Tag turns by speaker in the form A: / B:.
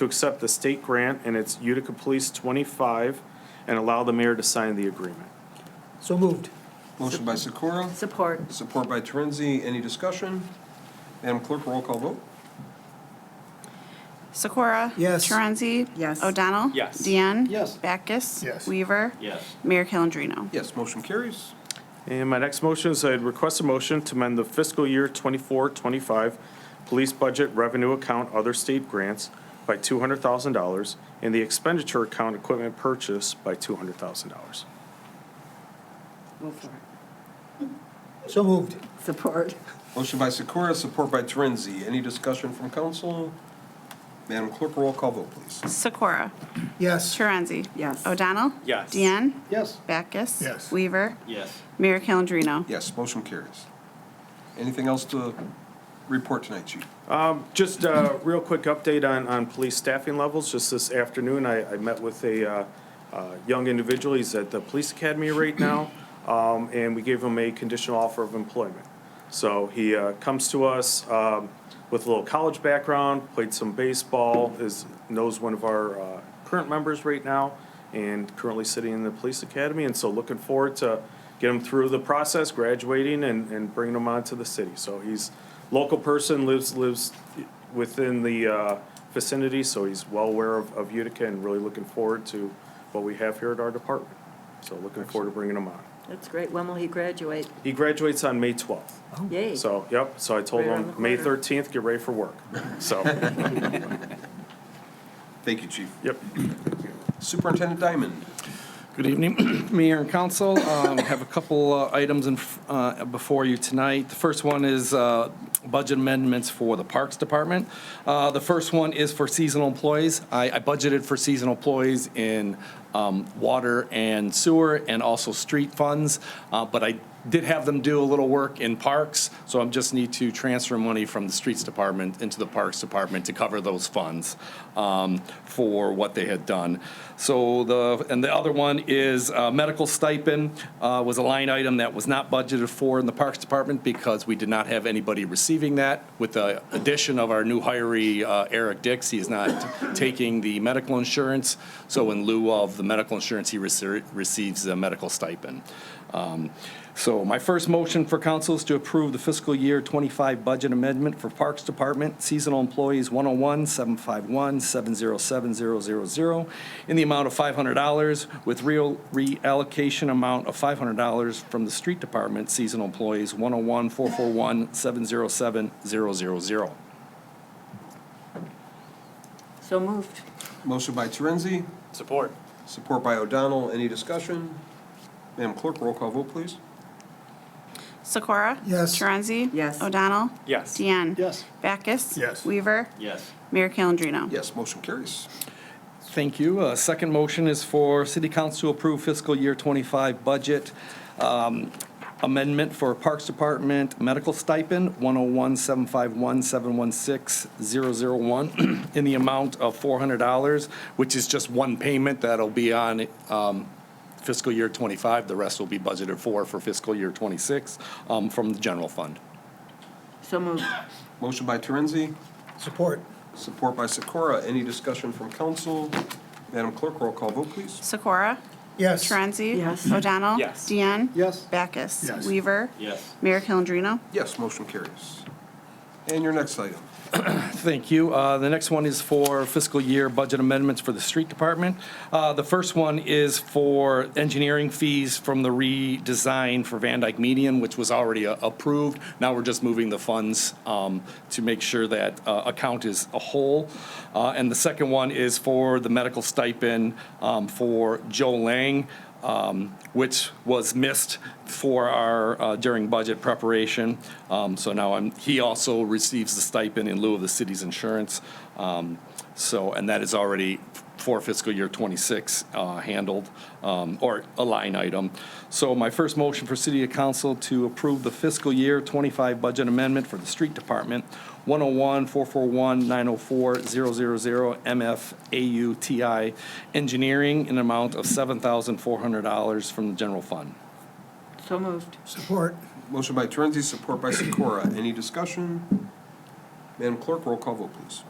A: to accept the state grant and its Utica Police 25 and allow the mayor to sign the agreement.
B: So moved.
C: Motion by Sikora,
D: Support.
C: support by Torenzi. Any discussion? Madam Clerk, roll call vote.
E: Sikora?
B: Yes.
E: Torenzi?
D: Yes.
E: O'Donnell?
F: Yes.
E: Deanne?
B: Yes.
E: Backus?
B: Yes.
E: Weaver?
F: Yes.
E: Mayor Calendino?
C: Yes, motion carries.
A: And my next motion is I'd request a motion to amend the fiscal year 24-25 police budget revenue account other state grants by $200,000 and the expenditure account equipment purchase by $200,000.
D: Move for it.
B: So moved.
D: Support.
C: Motion by Sikora, support by Torenzi. Any discussion from council? Madam Clerk, roll call vote, please.
E: Sikora?
B: Yes.
E: Torenzi?
D: Yes.
E: O'Donnell?
F: Yes.
E: Deanne?
B: Yes.
E: Backus?
B: Yes.
E: Weaver?
F: Yes.
E: Mayor Calendino?
C: Yes, motion carries. Anything else to report tonight, Chief?
A: Just a real quick update on, on police staffing levels. Just this afternoon, I, I met with a uh, uh, young individual. He's at the police academy right now, um, and we gave him a conditional offer of employment. So he uh, comes to us um, with a little college background, played some baseball, is, knows one of our uh, current members right now, and currently sitting in the police academy. And so looking forward to get him through the process, graduating and, and bringing him on to the city. So he's local person, lives, lives within the uh, vicinity, so he's well aware of, of Utica and really looking forward to what we have here at our department. So looking forward to bringing him on.
D: That's great. When will he graduate?
A: He graduates on May twelfth.
D: Yay.
A: So, yep, so I told
D: Right around
A: him,
D: the
A: May
D: corner.
A: thirteenth, get ready for work. So,
C: Thank you, Chief.
A: yep.
C: Superintendent Diamond.
G: Good evening, Mayor and Council. Um, Have a couple uh, items in f- uh, before you tonight. The first one is uh, budget amendments for the Parks Department. Uh, The first one is for seasonal employees. I I budgeted for seasonal employees in um, water and sewer and also street funds, uh, but I did have them do a little work in parks, so I just need to transfer money from the streets department into the parks department to cover those funds um, for what they had done. So the, and the other one is uh, medical stipend uh, was a line item that was not budgeted for in the parks department because we did not have anybody receiving that. With the addition of our new hiree, uh, Eric Dix, he is not taking the medical insurance, so in lieu of the medical insurance, he rece- receives a medical stipend. Um, So my first motion for council is to approve the fiscal year 25 budget amendment for Parks Department, seasonal employees 101, 751, 707, in the amount of $500 with real reallocation amount of $500 from the Street Department, seasonal employees 101, 441, 707,
D: So moved.
C: Motion by Torenzi,
F: Support.
C: support by O'Donnell. Any discussion? Madam Clerk, roll call vote, please.
E: Sikora?
B: Yes.
E: Torenzi?
D: Yes.
E: O'Donnell?
F: Yes.
E: Deanne?
B: Yes.
E: Backus?
B: Yes.
E: Weaver?
F: Yes.
E: Mayor Calendino?
C: Yes, motion carries.
G: Thank you. Uh, Second motion is for City Council to approve fiscal year 25 budget um, amendment for Parks Department medical stipend, 101-751-716-001, in the amount of $400, which is just one payment that'll be on um, fiscal year 25. The rest will be budgeted for, for fiscal year 26 um, from the general fund.
D: So moved.
C: Motion by Torenzi,
B: Support.
C: support by Sikora. Any discussion from council? Madam Clerk, roll call vote, please.
E: Sikora?
B: Yes.
E: Torenzi?
D: Yes.
E: O'Donnell?
F: Yes.
E: Deanne?
B: Yes.
E: Backus?
B: Yes.
E: Weaver?
F: Yes.
E: Mayor Calendino?
C: Yes, motion carries. And your next item.
G: Thank you. Uh, The next one is for fiscal year budget amendments for the street department. Uh, The first one is for engineering fees from the redesign for Van Dyke Median, which was already uh, approved. Now we're just moving the funds um, to make sure that uh, account is a whole. Uh, And the second one is for the medical stipend um, for Joe Lang, um, which was missed for our, uh, during budget preparation. Um, So now I'm, he also receives the stipend in lieu of the city's insurance. Um, So, and that is already for fiscal year '26 handled, um, or a line item. So my first motion for City Council to approve the fiscal year '25 budget amendment for the Street Department, 101-441-904-000-MFAUTI Engineering in an amount of $7,400 from the general fund.
D: So moved.
B: Support.
C: Motion by Torenzi, support by Sikora. Any discussion? Madam Clerk, roll call vote, please.